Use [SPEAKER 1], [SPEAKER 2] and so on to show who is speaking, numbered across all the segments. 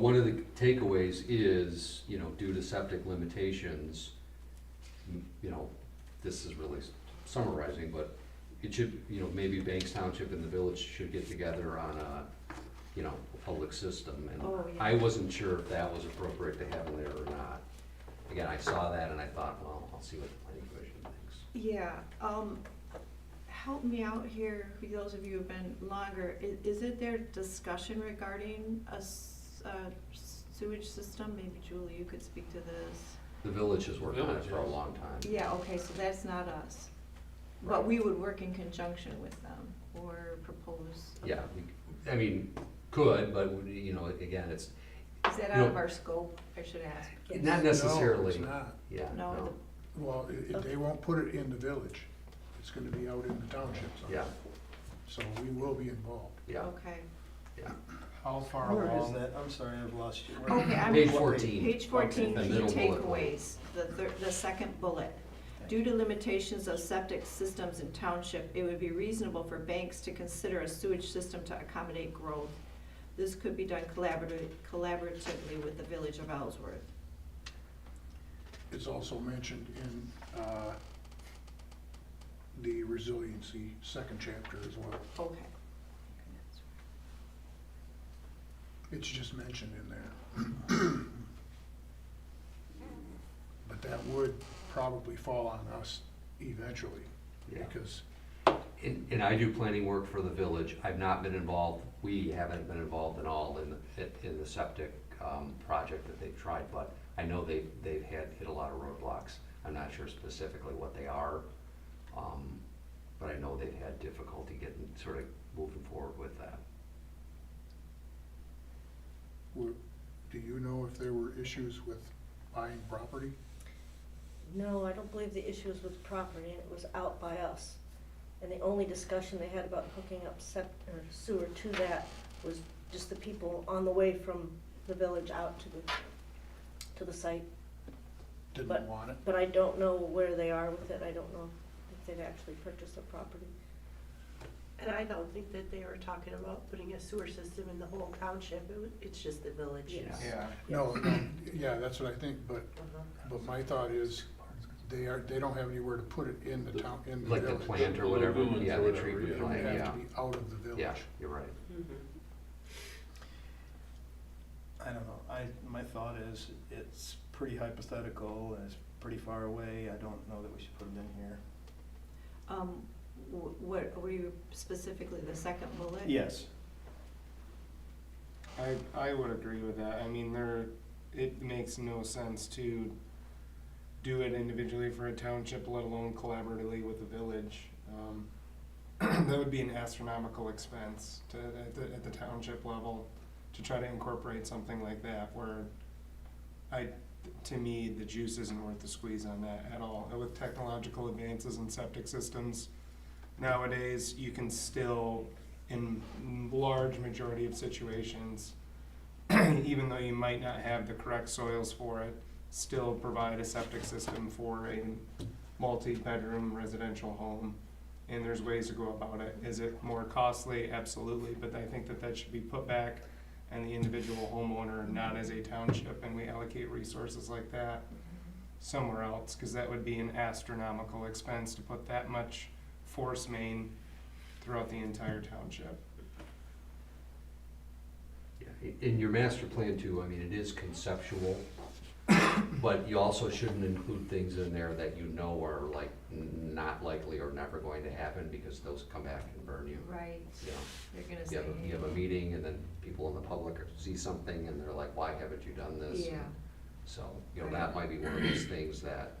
[SPEAKER 1] One of the takeaways is, you know, due to septic limitations, m- you know, this is really summarizing, but it should, you know, maybe Banks Township and the village should get together on a, you know, a public system. And
[SPEAKER 2] Oh, yeah.
[SPEAKER 1] I wasn't sure if that was appropriate to have in there or not. Again, I saw that and I thought, well, I'll see what the planning commission thinks.
[SPEAKER 2] Yeah, um, help me out here, for those of you who've been longer, i- is it there discussion regarding a s- a sewage system? Maybe Julie, you could speak to this.
[SPEAKER 1] The village has worked on it for a
[SPEAKER 3] Village has.
[SPEAKER 1] long time.
[SPEAKER 2] Yeah, okay, so that's not us, but we would work in conjunction with them or propose.
[SPEAKER 1] Yeah, we- I mean, could, but, you know, again, it's
[SPEAKER 2] Is that out of
[SPEAKER 1] No.
[SPEAKER 2] our scope, I should ask?
[SPEAKER 1] not necessarily.
[SPEAKER 4] No, it's not.
[SPEAKER 1] Yeah,
[SPEAKER 2] No,
[SPEAKER 1] no,
[SPEAKER 4] Well, i- if they won't put it in the village, it's gonna be out in the township. so-
[SPEAKER 1] yeah,
[SPEAKER 4] So we will be involved.
[SPEAKER 1] yeah,
[SPEAKER 2] Okay,
[SPEAKER 1] yeah.
[SPEAKER 5] How far
[SPEAKER 6] Where is
[SPEAKER 5] along,
[SPEAKER 6] that? I'm sorry, I've lost you. Where-
[SPEAKER 2] okay, I'm.
[SPEAKER 1] Page fourteen.
[SPEAKER 2] Page fourteen,
[SPEAKER 1] Okay.
[SPEAKER 2] key
[SPEAKER 1] Middle bullet point.
[SPEAKER 2] takeaways, the third, the second bullet. Due to limitations of septic systems in township, it would be reasonable for banks to consider a sewage system to accommodate growth. This could be done collaboratively, collaboratively with the village of Ellsworth.
[SPEAKER 4] It's also mentioned in uh, the resiliency second chapter as well.
[SPEAKER 2] Okay.
[SPEAKER 4] It's just mentioned in there. But that would probably fall on us eventually,
[SPEAKER 1] Yeah.
[SPEAKER 4] because
[SPEAKER 1] And, and I do planning work for the village. I've not been involved, we haven't been involved at all in, the- in the septic, um, project that they've tried, but I know they, they've had, hit a lot of roadblocks. I'm not sure specifically what they are, um, but I know they've had difficulty getting, sort of moving forward with that.
[SPEAKER 4] we're- do you know if there were issues with buying property?
[SPEAKER 7] No, I don't believe the issue was with property, it was out by us. And the only discussion they had about hooking up sep, or sewer to that was just the people on the way from the village out to the, to the site. But-
[SPEAKER 4] Didn't want it?
[SPEAKER 7] But I don't know where they are with it, I don't know if they've actually purchased the property.
[SPEAKER 8] And I don't think that they were talking about putting a sewer system in the whole township, it was, it's just the village.
[SPEAKER 1] Yeah.
[SPEAKER 5] yeah,
[SPEAKER 4] No, no, yeah, that's what I think, but,
[SPEAKER 8] Uh-huh.
[SPEAKER 4] but my thought is, they are, they don't have anywhere to put it in the town, in the
[SPEAKER 1] Like the
[SPEAKER 4] village.
[SPEAKER 1] plant or
[SPEAKER 3] The
[SPEAKER 1] whatever,
[SPEAKER 3] lagoons or
[SPEAKER 1] yeah, the
[SPEAKER 3] whatever, yeah.
[SPEAKER 1] treatment
[SPEAKER 4] It would
[SPEAKER 1] plant, yeah,
[SPEAKER 4] have to be out of the village.
[SPEAKER 1] yeah, you're right.
[SPEAKER 6] I don't know. I, my thought is, it's pretty hypothetical and it's pretty far away. I don't know that we should put it in here.
[SPEAKER 2] Um, wh- what, were you specifically the second bullet?
[SPEAKER 6] Yes.
[SPEAKER 5] I, I would agree with that, I mean, there, it makes no sense to do it individually for a township, let alone collaboratively with the village. Um, That would be an astronomical expense to, at the, at the township level, to try to incorporate something like that, where I, to me, the juice isn't worth the squeeze on that at all, And with technological advances in septic systems nowadays, you can still in large majority of situations, even though you might not have the correct soils for it, still provide a septic system for a multi-bedroom residential home. And there's ways to go about it. Is it more costly? Absolutely, but I think that that should be put back on the individual homeowner, not as a township, and we allocate resources like that somewhere else, cause that would be an astronomical expense to put that much force main throughout the entire township.
[SPEAKER 1] Yeah, In your master plan too, I mean, it is conceptual, but you also shouldn't include things in there that you know are like n- not likely or never going to happen because those come back and burn you.
[SPEAKER 2] Right,
[SPEAKER 1] You know,
[SPEAKER 2] you're gonna
[SPEAKER 1] you
[SPEAKER 2] say.
[SPEAKER 1] have, a- you have a meeting and then people in the public are- see something and they're like, why haven't you done this?
[SPEAKER 2] Yeah,
[SPEAKER 1] So, you know, that might be one of those things that,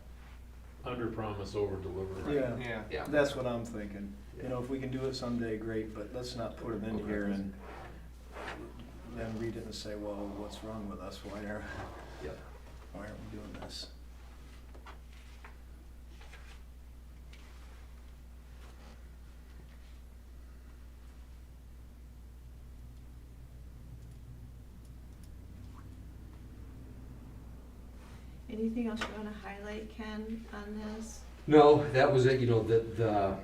[SPEAKER 3] Under promise, over deliver.
[SPEAKER 6] Yeah,
[SPEAKER 5] Yeah.
[SPEAKER 1] yeah.
[SPEAKER 6] that's what I'm thinking. You
[SPEAKER 1] yeah.
[SPEAKER 6] know, if we can do it someday, great, but let's not put it in here and then read it and say, well, what's wrong with us? Why are,
[SPEAKER 1] Yep.
[SPEAKER 6] why aren't we doing this?
[SPEAKER 2] anything else you wanna highlight, Ken, on this?
[SPEAKER 1] No, that was it, you know, the, the,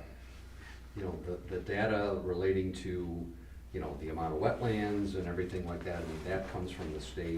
[SPEAKER 1] you know, the, the data relating to, you know, the amount of wetlands and everything like that, I mean, that comes from the state